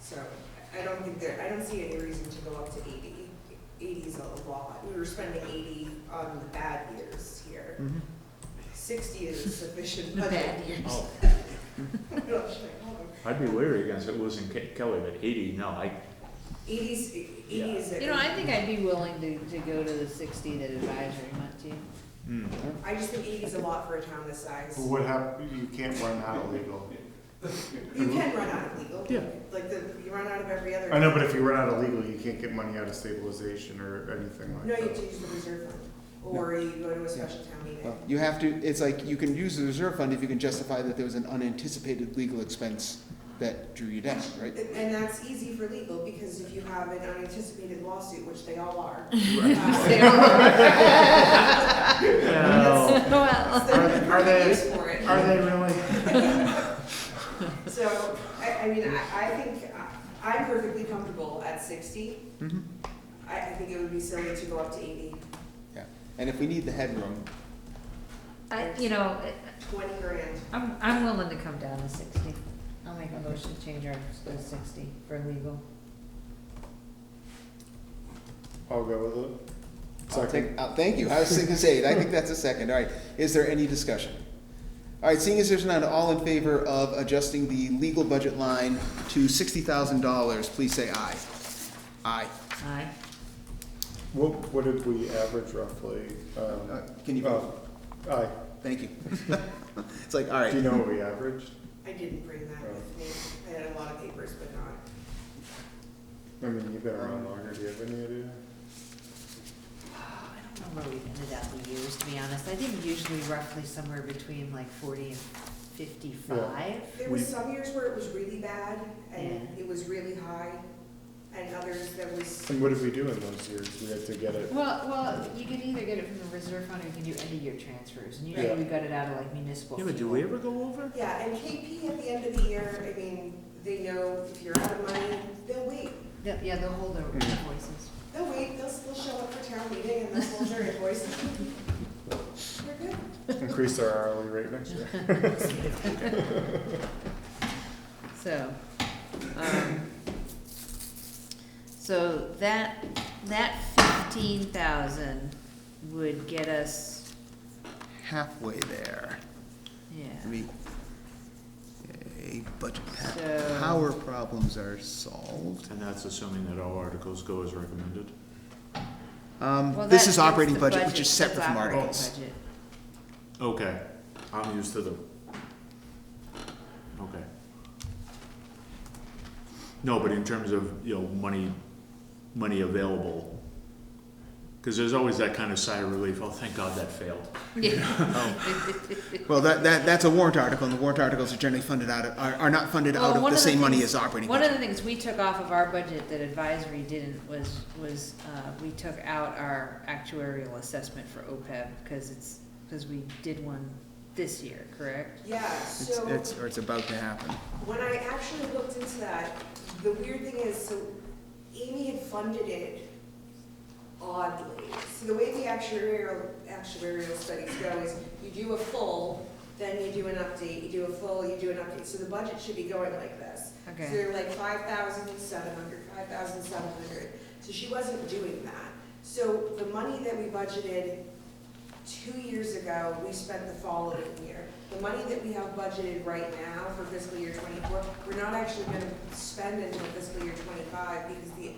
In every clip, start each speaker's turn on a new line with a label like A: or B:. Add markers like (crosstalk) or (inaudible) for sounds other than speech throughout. A: So I don't think there, I don't see any reason to go up to eighty. Eighty's a lot. We were spending eighty on the bad years here. Sixty is a sufficient
B: (laughs) The
A: budget. (laughs)
B: bad years.
C: Oh,
A: Eighty's,
C: I'd be wary against it losing Ke- Kelly, but eighty, no, I,
A: eighty
C: Yeah.
A: is.
B: You know, I think I'd be willing to, to go to the sixty that advisory went to.
C: mm,
A: I just think eighty's a lot for a town this size.
D: But what hap, you can't run out of legal.
A: You can run out of legal.
C: Yeah.
A: Like the, you run out of every other.
D: I know, but if you run out of legal, you can't get money out of stabilization or anything
A: No,
D: like
A: you have
D: that.
A: to use the reserve fund, or you go to a special town meeting.
E: Well, You have to, it's like, you can use the reserve fund if you can justify that there was an unanticipated legal expense that drew you down, right?
A: And and that's easy for legal, because if you have an unanticipated lawsuit, which they all are.
B: They
A: uh,
B: are-
D: No.
B: (laughs) Well,
A: that's the
D: Are- are they-
A: use for it.
D: Are they really?
A: So, I, I mean, I, I think, I- I'm perfectly comfortable at sixty.
E: Mhm.
A: I, I think it would be silly to go up to eighty,
E: Yeah, and if we need the headroom,
B: I, you know,
A: twenty grand.
B: I'm, I'm willing to come down to sixty. I'll make a motion to change ours to sixty for legal.
D: I'll go with it.
E: I'll
D: Second.
E: take, uh, thank you, I was gonna say, I think that's a second, all right, is there any discussion? All right, seeing as there's none, all in favor of adjusting the legal budget line to sixty thousand dollars, please say aye. Aye.
B: Aye.
D: What, what did we average roughly? Um,
E: Uh, Can you,
D: oh, Aye.
E: thank you. (laughs) It's like, all right.
D: Do you know what we averaged?
A: I didn't bring that with me, I had a lot of papers, but not.
D: I mean, you've been around longer, do you have any idea?
B: I don't know where we ended up the years, to be honest. I think usually roughly somewhere between like forty and fifty-five.
A: There was
D: We-
A: some years where it was really bad, and
B: Yeah.
A: it was really high, and others that was
D: And what did we do in those years? We had to get it,
B: Well, well, you can either get it from the reserve fund or you can do end-of-year transfers, and usually
D: Yeah.
B: we got it out of like municipal
C: yeah,
B: fuel.
C: but do we ever go over?
A: Yeah, and KP at the end of the year, I mean, they know if you're out of money, they'll wait.
B: The- Yeah, they'll hold their
D: Mm.
B: invoices.
A: They'll wait, they'll still show up for town meeting and they'll hold their invoice. We're good.
D: increase our hourly rate
A: (laughs)
D: next year. (laughs)
B: So, um, so that, that fifteen thousand would get us,
E: halfway there. I
B: yeah,
E: mean, a budget, pa-
B: So-
E: power problems are solved.
C: And that's assuming that all articles go as recommended.
B: Well,
E: Um,
B: that
E: this is
B: gets
E: operating
B: the
E: budget, which
B: budget,
E: is separate
B: that's
E: from
B: operating
E: articles. (laughs)
B: budget.
C: Okay, I'm used to the. Okay. No, but in terms of, you know, money, money available, because there's always that kind of sigh of relief, oh, thank God that failed.
B: (laughs) Yeah.
E: Well, that, that, that's a warrant article, and the warrant articles are generally funded out of, are, are not funded
B: Well,
E: out of
B: one
E: the
B: of the
E: same money
B: things-
E: as operating
B: One of
E: budget.
B: the things we took off of our budget that advisory didn't was, was, uh, we took out our actuarial assessment for OPEB, because it's, because we did one this year, correct?
A: Yeah,
E: It's,
A: so
E: it's, or it's about to happen.
A: when I actually looked into that, the weird thing is, so Amy had funded it oddly. So the way the actuarial, actuarial studies go is you do a full, then you do an update, you do a full, you do an update. So the budget should be going like this. So
B: Okay,
A: they're like five thousand seven hundred, five thousand seven hundred. So she wasn't doing that. So the money that we budgeted two years ago, we spent the following year. The money that we have budgeted right now for fiscal year twenty-four, we're not actually gonna spend until fiscal year twenty-five because the,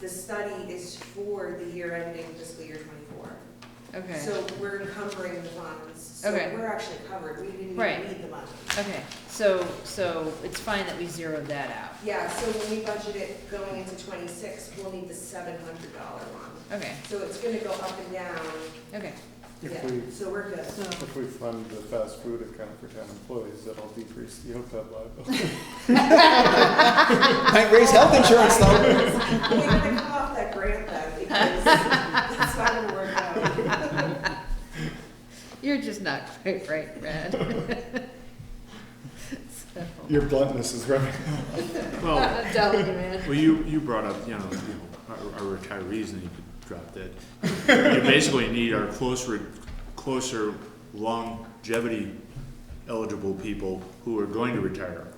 A: the study is for the year ending fiscal year twenty-four.
B: okay,
A: So we're encumbering the funds. So
B: Okay.
A: we're actually covered. We didn't even
B: Right.
A: need the money.
B: okay, so, so it's fine that we zeroed that out,
A: Yeah, so when we budget it going into twenty-six, we'll need the seven hundred dollar one.
B: okay,
A: So it's gonna go up and down,
B: okay,
D: If
A: yeah,
D: we,
A: so we're good.
B: so.
D: if we fund the fast food account for town employees, that'll decrease the OPEB liability.
E: Might raise health insurance though.
A: We're gonna cut off that grant then, because (laughs) it's not gonna work out.
B: You're just not quite right, Brad. (laughs) So-
D: (laughs) Your bluntness is right.
C: Well,
B: I'm telling you, man.
C: well, you, you brought up, you know, you know, our, our retirees, and you could drop that. You basically need our closer, closer longevity eligible people who are going to retire.